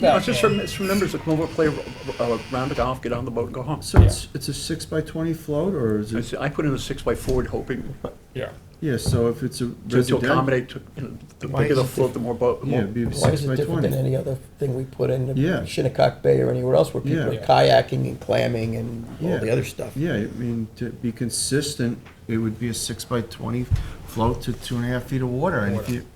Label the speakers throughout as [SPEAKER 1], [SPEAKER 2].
[SPEAKER 1] No,
[SPEAKER 2] It's just for, it's for members to come over, play a a round of golf, get on the boat and go home.
[SPEAKER 3] So it's, it's a six by twenty float, or is
[SPEAKER 2] I
[SPEAKER 3] it,
[SPEAKER 2] said- I put in a six by four hoping
[SPEAKER 1] yeah.
[SPEAKER 3] yeah, so if it's a
[SPEAKER 2] to- to
[SPEAKER 3] residential,
[SPEAKER 2] accommodate, to, you know, the
[SPEAKER 4] Why
[SPEAKER 2] bigger the
[SPEAKER 4] is it
[SPEAKER 2] float, the more boat, the
[SPEAKER 3] yeah,
[SPEAKER 2] more.
[SPEAKER 3] it'd be a
[SPEAKER 4] Why
[SPEAKER 3] six
[SPEAKER 4] is it
[SPEAKER 3] by
[SPEAKER 4] different than
[SPEAKER 3] twenty.
[SPEAKER 4] any other thing we put in
[SPEAKER 3] Yeah.
[SPEAKER 4] Shinnecock Bay or anywhere else where people are
[SPEAKER 3] Yeah.
[SPEAKER 4] kayaking and clamming and all
[SPEAKER 3] Yeah.
[SPEAKER 4] the other stuff?
[SPEAKER 3] Yeah, I mean, to be consistent, it would be a six by twenty float to two and a half feet of water, and if you,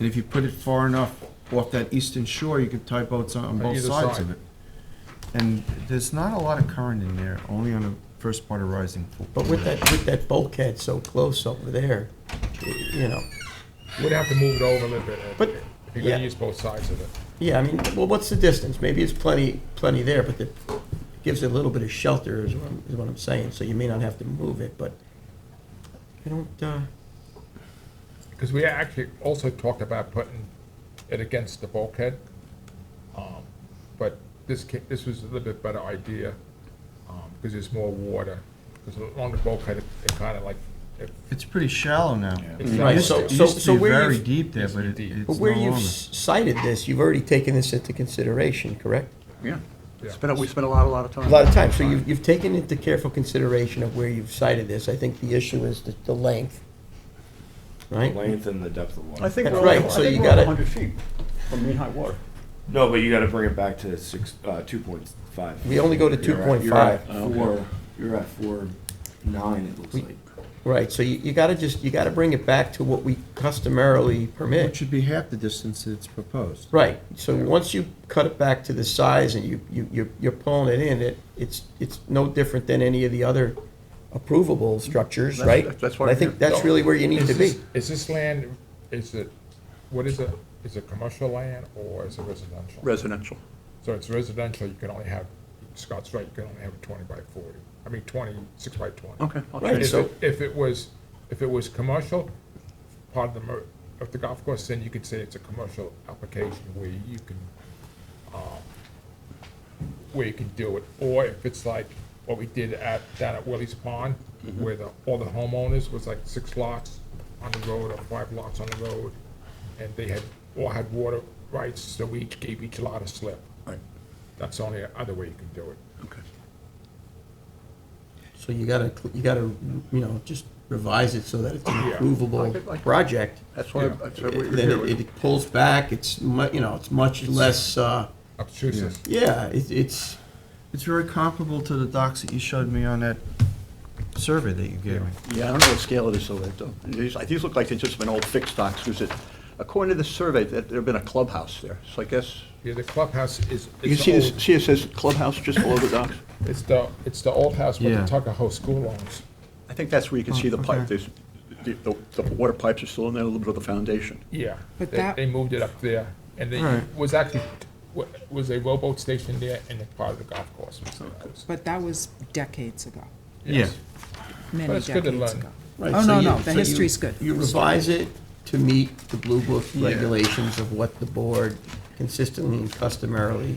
[SPEAKER 3] and if you put it far enough off that eastern shore, you could tie boats on- on both
[SPEAKER 1] either
[SPEAKER 3] sides
[SPEAKER 1] side.
[SPEAKER 3] of it. And there's not a lot of current in there, only on the first part of rising. Fork.
[SPEAKER 4] But with that, with that bulkhead so close over there, y- you know,
[SPEAKER 1] We'd have to move it over a little bit. Ed.
[SPEAKER 4] But-
[SPEAKER 1] You're
[SPEAKER 4] yeah.
[SPEAKER 1] gonna use both sides of it.
[SPEAKER 4] yeah, I mean, well, what's the distance? Maybe it's plenty, plenty there, but it gives it a little bit of shelter is what I'm, is what I'm saying, so you may not have to move it, but I don't, uh,
[SPEAKER 1] Because we actually also talked about putting it against the bulkhead. um, But this ca- this was a little bit better idea, because there's more water. Because along the bulkhead, it kind of like, it-
[SPEAKER 3] It's pretty shallow now.
[SPEAKER 1] It's
[SPEAKER 3] It
[SPEAKER 1] Right,
[SPEAKER 3] used-
[SPEAKER 1] so-
[SPEAKER 3] It
[SPEAKER 4] so-
[SPEAKER 3] used
[SPEAKER 4] so
[SPEAKER 3] to be
[SPEAKER 4] where you-
[SPEAKER 3] very deep there, but it-
[SPEAKER 1] Deep.
[SPEAKER 3] it's no
[SPEAKER 4] but where you've
[SPEAKER 3] longer.
[SPEAKER 4] s- cited this, you've already taken this into consideration, correct?
[SPEAKER 2] Yeah.
[SPEAKER 1] Yeah.
[SPEAKER 2] Spent, a- we spent a lot, a lot of time.
[SPEAKER 4] A lot of time, so you've, you've taken into careful consideration of where you've cited this. I think the issue is the, the length,
[SPEAKER 5] The
[SPEAKER 4] right?
[SPEAKER 5] Length and the depth of
[SPEAKER 2] I
[SPEAKER 5] water.
[SPEAKER 2] think
[SPEAKER 4] That's
[SPEAKER 2] we're like,
[SPEAKER 4] right,
[SPEAKER 2] I
[SPEAKER 4] so
[SPEAKER 2] think
[SPEAKER 4] you
[SPEAKER 2] we're like
[SPEAKER 4] gotta-
[SPEAKER 2] hundred feet from mean high water.
[SPEAKER 5] No, but you gotta bring it back to six, uh, two point five.
[SPEAKER 4] We only go to
[SPEAKER 5] You're at- you're at
[SPEAKER 4] 2.5.
[SPEAKER 5] Four, you're at four nine, it looks
[SPEAKER 4] We-
[SPEAKER 5] like.
[SPEAKER 4] Right, so you, you gotta just, you gotta bring it back to what we customarily
[SPEAKER 3] It
[SPEAKER 4] permit.
[SPEAKER 3] should be half the distance that's proposed.
[SPEAKER 4] Right, so once you cut it back to the size and you, you, you're- you're pulling it in, it, it's, it's no different than any of the other approvable structures,
[SPEAKER 2] That's-
[SPEAKER 4] right?
[SPEAKER 2] that's- that's what
[SPEAKER 4] And I
[SPEAKER 2] I'm
[SPEAKER 4] think
[SPEAKER 2] here-
[SPEAKER 4] that's really where you need
[SPEAKER 1] Is
[SPEAKER 4] to be.
[SPEAKER 1] this- Is this land, is it, what is it, is it commercial land or is it residential?
[SPEAKER 2] Residential.
[SPEAKER 1] So it's residential, you can only have, Scott's right, you can only have a twenty by forty, I mean, twenty, six by twenty.
[SPEAKER 2] Okay. I'll
[SPEAKER 4] Right.
[SPEAKER 2] change
[SPEAKER 1] If
[SPEAKER 2] it.
[SPEAKER 4] so-
[SPEAKER 1] it, if it was, if it was commercial, part of the, mer- of the golf course, then you could say it's a commercial application where you can, um, where you can do it, or if it's like what we did at, down at Willie's Pond,
[SPEAKER 2] Mm-hmm.
[SPEAKER 1] where the, all the homeowners was like six lots on the road, or five lots on the road, and they had, all had water rights, so we each gave each lot a slip.
[SPEAKER 2] Right.
[SPEAKER 1] That's the only other way you can do it.
[SPEAKER 2] Okay.
[SPEAKER 4] So you gotta, cl- you gotta, you know, just revise it so that it's an
[SPEAKER 1] Yeah.
[SPEAKER 4] approvable
[SPEAKER 2] I- I-
[SPEAKER 4] project.
[SPEAKER 2] That's why,
[SPEAKER 1] Yeah.
[SPEAKER 2] that's why we're
[SPEAKER 4] Then
[SPEAKER 2] here.
[SPEAKER 4] it, it pulls back, it's mu, you know, it's much less, uh,
[SPEAKER 1] Obtrusive.
[SPEAKER 4] yeah, it, it's,
[SPEAKER 3] It's very comparable to the docks that you showed me on that survey that you gave me.
[SPEAKER 2] Yeah, I don't know what scale it is, so it, uh, these, these look like they've just been old fixed docks, because it, according to the survey, that there'd been a clubhouse there, so I guess,
[SPEAKER 1] Yeah, the clubhouse is.
[SPEAKER 2] you can
[SPEAKER 1] it's
[SPEAKER 2] see
[SPEAKER 1] old.
[SPEAKER 2] this, see it says clubhouse just below the docks?
[SPEAKER 1] It's the, it's the old house with
[SPEAKER 3] Yeah.
[SPEAKER 1] the Tucker House School owns.
[SPEAKER 2] I think that's where you can see the pipe,
[SPEAKER 3] okay.
[SPEAKER 2] there's, the, the the water pipes are still in there, a little bit of the foundation.
[SPEAKER 1] Yeah.
[SPEAKER 3] But
[SPEAKER 1] They,
[SPEAKER 3] that-
[SPEAKER 1] they moved it up there, and they,
[SPEAKER 3] Right.
[SPEAKER 1] was actually, wa- was a rowboat station there and a part of the golf course. was there also.
[SPEAKER 6] But that was decades ago,
[SPEAKER 3] Yeah.
[SPEAKER 6] many
[SPEAKER 1] But it's good to
[SPEAKER 6] decades
[SPEAKER 1] learn.
[SPEAKER 6] ago.
[SPEAKER 4] right.
[SPEAKER 6] Oh,
[SPEAKER 4] so
[SPEAKER 6] no,
[SPEAKER 4] you-
[SPEAKER 6] no,
[SPEAKER 4] so
[SPEAKER 6] the
[SPEAKER 4] you-
[SPEAKER 6] history's good.
[SPEAKER 4] You revise it to meet the Blue Book regulations of what the board consistently and customarily,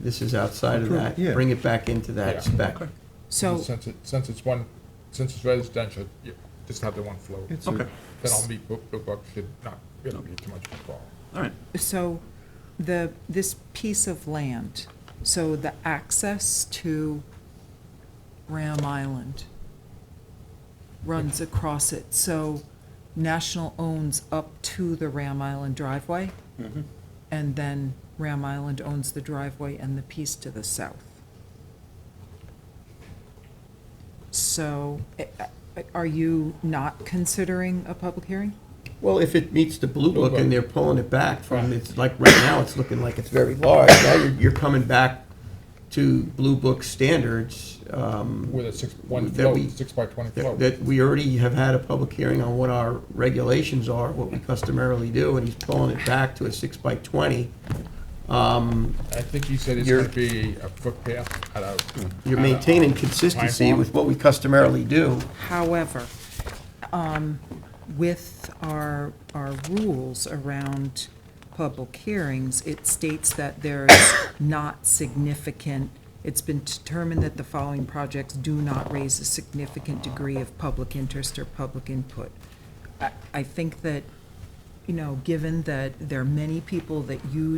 [SPEAKER 4] this is outside of that,
[SPEAKER 3] Approve, yeah.
[SPEAKER 4] bring it back into
[SPEAKER 1] Yeah.
[SPEAKER 4] that spec.
[SPEAKER 2] Okay.
[SPEAKER 6] So,
[SPEAKER 1] Since it, since it's one, since it's residential, you just have the one float.
[SPEAKER 3] It's
[SPEAKER 2] Okay,
[SPEAKER 3] a,
[SPEAKER 1] Then I'll be, Blue Blue Book should not really be too much of a problem.
[SPEAKER 2] all right.
[SPEAKER 6] so the, this piece of land, so the access to Ram Island runs across it, so National owns up to the Ram Island driveway, and then Ram Island owns the driveway and the piece to the south. So, eh, eh, are you not considering a public hearing?
[SPEAKER 4] Well, if it meets the blue book
[SPEAKER 1] Book.
[SPEAKER 4] and they're pulling it back from, it's like, right now, it's looking like it's very large. Now you're, you're coming back to blue book standards, um,
[SPEAKER 1] With a six, one
[SPEAKER 4] That we-
[SPEAKER 1] float, six by twenty
[SPEAKER 4] that
[SPEAKER 1] float.
[SPEAKER 4] that we already have had a public hearing on what our regulations are, what we customarily do, and he's pulling it back to a six by twenty. Um,
[SPEAKER 1] I think you said it's
[SPEAKER 4] You're-
[SPEAKER 1] gonna be a footpath out of.
[SPEAKER 4] You're maintaining consistency with what we customarily do.
[SPEAKER 6] However, um, with our, our rules around public hearings, it states that there's not significant, it's been determined that the following projects do not raise a significant degree of public interest or public input. I, I think that you know, given that there are many people that use